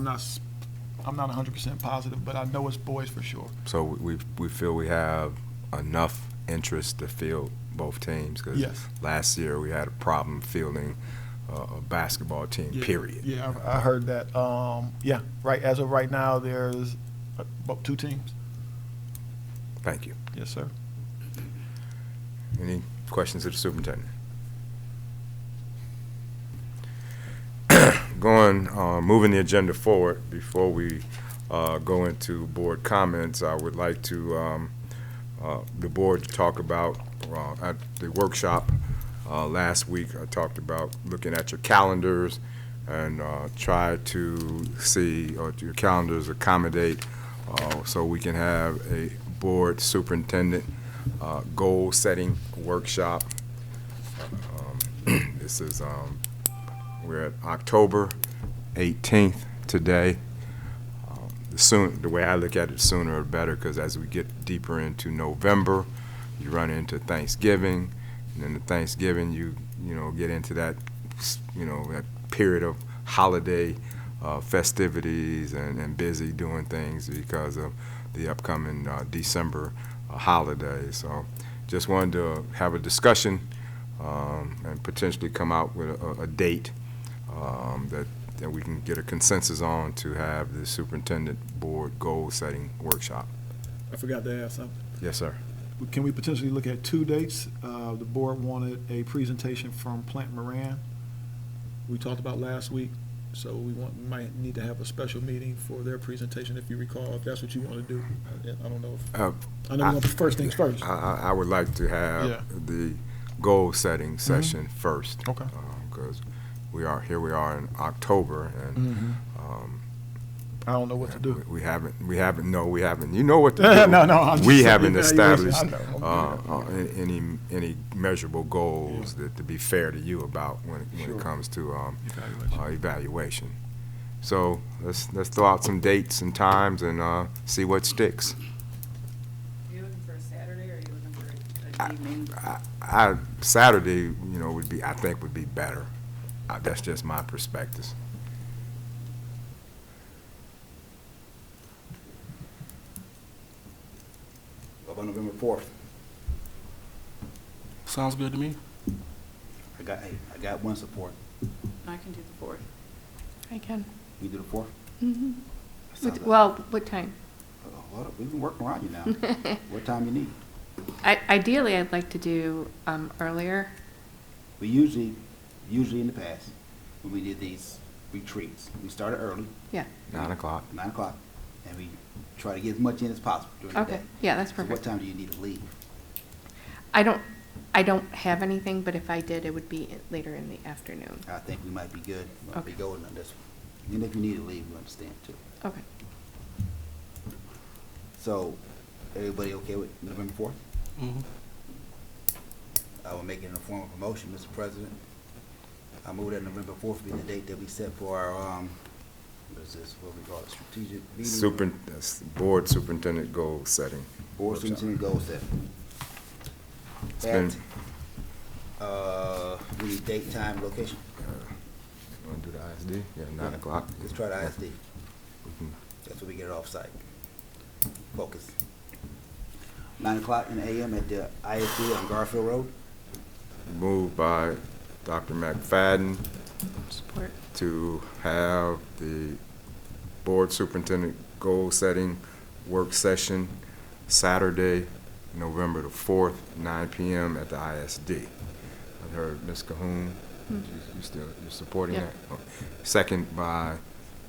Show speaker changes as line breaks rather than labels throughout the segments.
not, s- I'm not hundred percent positive, but I know it's boys for sure.
So we, we feel we have enough interest to field both teams? 'cause
Yes.
last year, we had a problem fielding uh, a basketball team,
Yeah.
period.
Yeah, I I heard that. Um, yeah, right, as of right now, there's about two teams.
Thank you.
Yes, sir.
Any questions of the superintendent? Going, uh, moving the agenda forward, before we uh, go into board comments, I would like to, um, uh, the board to talk about, uh, at the workshop uh, last week, I talked about looking at your calendars and uh, try to see, or your calendars accommodate, uh, so we can have a board superintendent uh, goal-setting workshop. Um, This is, um, we're at October 18th today. Um, The soon, the way I look at it, sooner the better, because as we get deeper into November, you run into Thanksgiving, and then the Thanksgiving, you, you know, get into that, s- you know, that period of holiday uh, festivities and, and busy doing things because of the upcoming uh, December uh, holiday. So just wanted to have a discussion um, and potentially come out with a, a date um, that, that we can get a consensus on to have the superintendent board goal-setting workshop.
I forgot to ask something.
Yes, sir.
Can we potentially look at two dates? Uh, the board wanted a presentation from Plant Moran. We talked about last week, so we want, might need to have a special meeting for their presentation, if you recall, if that's what you want to do. I- I don't know. if-
Uh,
I know we want first things first.
I, I, I would like to
Yeah. Mm-hmm.
have the goal-setting session first.
Okay.
Because we are, here we are in October, and
I
um,
don't know Mm-hmm. what to do.
We- We haven't, we haven't, no, we haven't, you know what to
No,
do.
no, I'm just
We
saying,
haven't
yeah, yeah,
established,
I
Oh,
know.
uh, uh, an- any, any measurable goals that, to be fair to you about when, it- when
Sure.
it comes to, um,
Evaluation.
uh, evaluation. So let's, let's throw out some dates and times and, uh, see what sticks.
Are you looking for a Saturday or are you looking for
I-
an evening?
I- I, Saturday, you know, would be, I think would be better. Uh, That's just my perspective.
How about November fourth?
Sounds good to me.
I got, hey, I got one support.
I can do the fourth.
I can.
You do the fourth?
Mhm.
That sounds
What-
like-
Well, what time?
Oh, Hold up, we've been working around you now. What time you need?
I- Ideally, I'd like to do um, earlier.
We usually, usually in the past, when we did these retreats, we started early,
Yeah,
Nine o'clock.
nine o'clock, and we try to get as much in as possible during the day.
okay, yeah, that's
So what
perfect.
time do you need to leave?
I don't, I don't have anything, but if I did, it would be i- later in the afternoon.
I think we might be good, might be
Okay.
golden on this one. And if you need to leave, we understand too.
Okay,
So, everybody okay with November fourth?
Mhm.
I will make it in the form of a motion, Mr. President. I move that November fourth be the date that we set for our, um, what is this, what we call it, strategic meeting?
Super, that's board superintendent goal-setting.
Board
workshop.
superintendent goal set.
It's been-
At, uh, we need date, time, location.
Want to Uh, do the ISD? Yeah, nine o'clock. Mm-hmm.
Let's try the ISD.
We can-
That's where we get it off-site. Focus. Nine o'clock in the AM at the ISD on Garfield Road.
Moved by Dr. McFadden
support.
to have the board superintendent goal-setting work session Saturday, November the fourth, nine PM at the ISD. I heard Ms. Cahoon, you you still, you're supporting
Hmm. Yeah.
that? Oh. Second by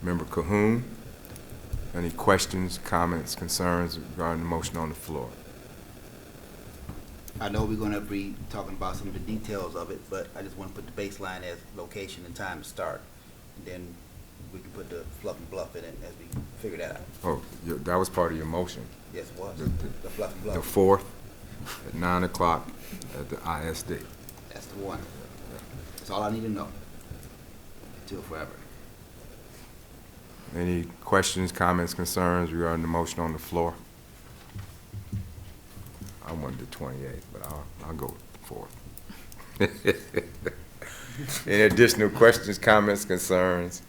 Member Cahoon. Any questions, comments, concerns regarding the motion on the floor?
I know we're gonna be talking about some of the details of it, but I just wanna put the baseline as location and time to start. And Then we can put the fluff and bluff in it as we figure that out.
Oh, you- that was part of your motion.
Yes, it was,
The- the-
the fluff and
the
bluff,
fourth at nine o'clock at the ISD.
that's the one. That's all I need to know. Until forever.
Any questions, comments, concerns regarding the motion on the floor? I wanted the twenty-eighth, but I'll, I'll go with the fourth. Any additional questions, comments, concerns?